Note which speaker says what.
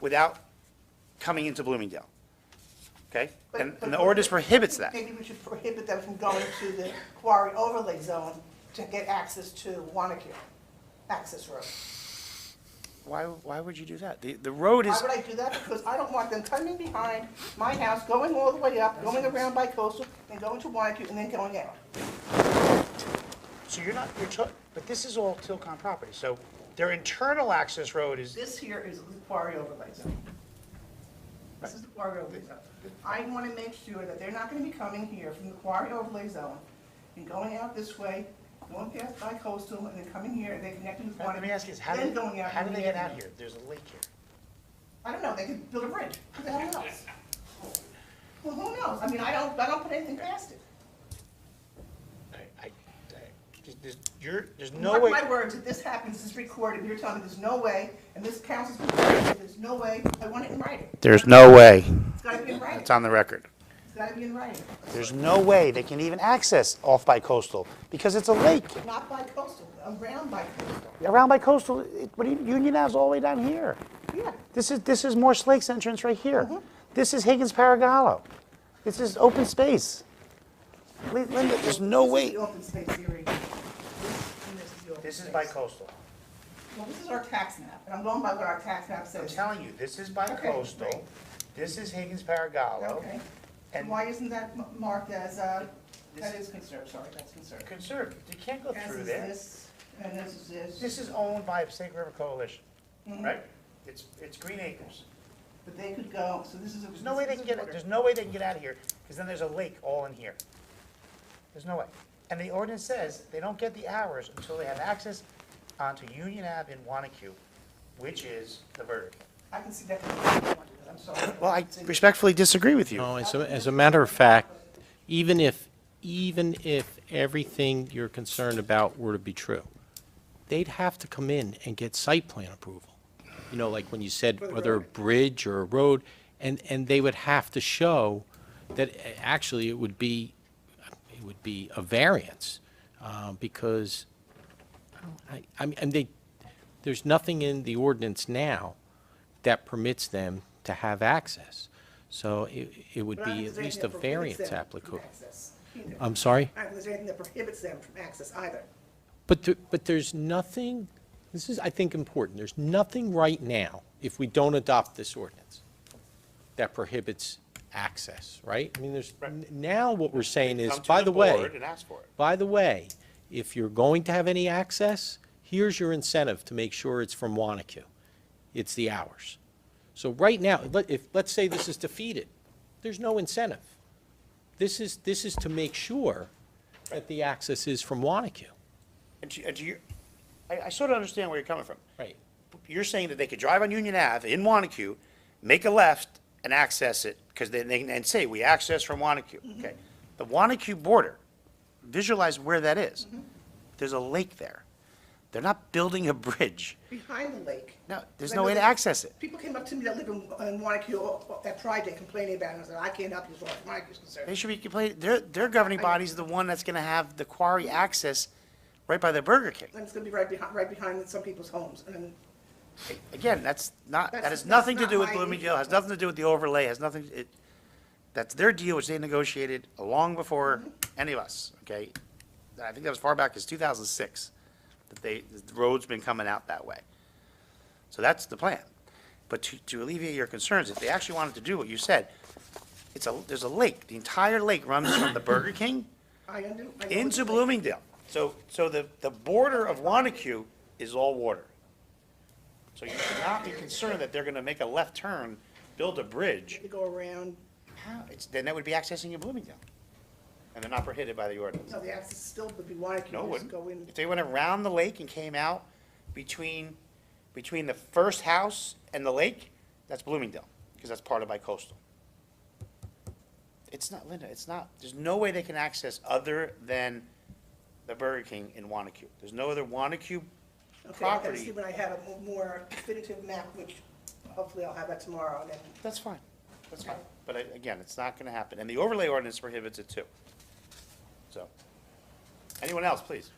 Speaker 1: without coming into Bloomingdale. Okay?
Speaker 2: But-
Speaker 1: And,
Speaker 2: but-
Speaker 1: and the ordinance prohibits that.
Speaker 2: Maybe we should prohibit them from going to the quarry overlay zone to get access to Wanacue, access road.
Speaker 1: Why, why would you do that? The, the road
Speaker 2: Why
Speaker 1: is,
Speaker 2: would I do that? Because I don't want them coming behind my house, going all the way up, going around by coastal, and going to Wanacue, and then going out.
Speaker 3: So you're not, you're, to- but this is all Tilcon property, so their internal access road is,
Speaker 2: This here is the quarry overlay zone. This is the quarry overlay zone. I want to make sure that they're not going to be coming here from the quarry overlay zone and going out this way, going past by coastal, and then coming here, and they connecting with
Speaker 3: let me
Speaker 2: Wanacue,
Speaker 3: ask you this, how do,
Speaker 2: then going out.
Speaker 3: how do
Speaker 2: and
Speaker 3: they
Speaker 2: then
Speaker 3: get out
Speaker 2: avenue.
Speaker 3: here? There's a lake here.
Speaker 2: I don't know, they could build a bridge, who the hell knows? Well, who knows, I mean, I don't, I don't put anything past it.
Speaker 3: I, I, I- there's, you're, there's no
Speaker 2: Mark
Speaker 3: way,
Speaker 2: my words, if this happens, this is recorded, you're telling me there's no way, and this council's been saying there's no way, I want it in writing.
Speaker 1: there's no way.
Speaker 2: It's gotta be in writing,
Speaker 1: It's on the record.
Speaker 2: it's gotta be in writing,
Speaker 3: there's no way they can even access off by coastal, because it's a lake.
Speaker 2: not by coastal, around by coastal.
Speaker 3: Around by coastal, it, what do you, Union Ave's all the way down here.
Speaker 2: Yeah,
Speaker 3: This is, this is Morse Lake's entrance right here. This is Higgins Paragallo. This is open space. Lin- Linda, there's no
Speaker 2: this is
Speaker 3: way.
Speaker 2: the open space area. This and this is the open
Speaker 3: This is
Speaker 2: space.
Speaker 3: by coastal.
Speaker 2: Well, this is our tax map, and I'm going by what our tax map
Speaker 3: I'm
Speaker 2: says.
Speaker 3: telling you, this is by
Speaker 2: Okay,
Speaker 3: coastal,
Speaker 2: right.
Speaker 3: this is Higgins Paragallo,
Speaker 2: Okay, and
Speaker 3: and
Speaker 2: why isn't that m- marked as, uh, that is
Speaker 3: This-
Speaker 2: conserved, sorry, that's conserved.
Speaker 3: conserve, you can't go
Speaker 2: As
Speaker 3: through
Speaker 2: is
Speaker 3: there.
Speaker 2: this, and this is this,
Speaker 3: This is owned by Snake River Coalition,
Speaker 2: Mm-hmm.
Speaker 3: right? It's, it's Green Acres.
Speaker 2: but they could go, so this is.
Speaker 3: There's no way they can get, there's no way they can get out of here, because then there's a lake all in here. There's no way. And the ordinance says they don't get the hours until they have access onto Union Ave in Wanacue, which is the vertical.
Speaker 2: I can see that, I'm sorry.
Speaker 1: Well, I respectfully disagree with you.
Speaker 4: No, as a, as a matter of fact, even if, even if everything you're concerned about were to be true, they'd have to come in and get site plan approval. You know, like when you said whether a bridge or a road, and, and they would have to show that uh, actually it would be, it would be a variance, uh, because I, I mean, and they, there's nothing in the ordinance now that permits them to have access. So it, it would
Speaker 2: But I don't
Speaker 4: be
Speaker 2: think
Speaker 4: at
Speaker 2: there's
Speaker 4: least a
Speaker 2: anything that prohibits
Speaker 4: variance
Speaker 2: them from
Speaker 4: applica-
Speaker 2: access
Speaker 3: Um,
Speaker 2: either.
Speaker 4: I'm sorry?
Speaker 2: I don't think there's anything that prohibits them from access either.
Speaker 4: But, there- but there's nothing, this is, I think, important, there's nothing right now, if we don't adopt this ordinance, that prohibits access, right? I mean, there's, n- now what we're saying is,
Speaker 1: Come to
Speaker 4: by the way.
Speaker 1: board And ask for it.
Speaker 4: By the way, if you're going to have any access, here's your incentive to make sure it's from Wanacue. It's the hours. So right now, let, if, let's say this is defeated, there's no incentive. This is, this is to make sure that the access is from Wanacue.
Speaker 1: And to, and to your, I, I sort of understand where you're coming from.
Speaker 4: Right.
Speaker 1: You're saying that they could drive on Union Ave in Wanacue, make a left and access it, because then they can, and say, we access from Wanacue, okay? The Wanacue border, visualize where that is. There's a lake there. They're not building a bridge.
Speaker 2: Behind the lake.
Speaker 1: No, there's
Speaker 2: I
Speaker 1: no
Speaker 2: know
Speaker 1: way to
Speaker 2: that-
Speaker 1: access it.
Speaker 2: People came up to me that live in, in Wanacue uh, at Pride Day complaining about it, and I said, I can't help you as far as Wanacue's concerned.
Speaker 1: They should be complaining, their, their governing body's the one that's gonna have the quarry access right by the Burger King.
Speaker 2: And it's gonna be right behind, right behind some people's homes, and
Speaker 1: Again, that's not, that
Speaker 2: That's-
Speaker 1: has nothing to
Speaker 2: that's
Speaker 1: do
Speaker 2: not
Speaker 1: with
Speaker 2: my
Speaker 1: Bloomingdale,
Speaker 2: issue.
Speaker 1: has nothing to do with the overlay, has nothing, it, that's their deal, which they negotiated long before
Speaker 2: Mm-hmm.
Speaker 1: any of us, okay? I think that was far back as two thousand six, that they, the road's been coming out that way. So that's the plan. But to, to alleviate your concerns, if they actually wanted to do what you said, it's a, there's a lake, the entire lake runs from the Burger King
Speaker 2: I undo. I know what
Speaker 1: into
Speaker 2: you're saying.
Speaker 1: Bloomingdale. So, so the, the border of Wanacue is all water. So you should not be concerned that they're gonna make a left turn, build a bridge.
Speaker 2: To go around,
Speaker 1: How, it's, then that would be accessing in Bloomingdale. And they're not prohibited by the ordinance.
Speaker 2: no, the access still would be Wanacue,
Speaker 1: No, it
Speaker 2: just
Speaker 1: wouldn't.
Speaker 2: go in.
Speaker 1: If they went around the lake and came out between, between the first house and the lake, that's Bloomingdale, because that's part of bicoastal. It's not, Linda, it's not, there's no way they can access other than the Burger King in Wanacue. There's no other Wanacue
Speaker 2: Okay, I gotta
Speaker 1: property.
Speaker 2: see when I have a more definitive map, which hopefully I'll have that tomorrow, and then
Speaker 1: That's fine, that's fine. But I- again, it's not gonna happen, and the overlay ordinance prohibits it too. So, anyone else, please?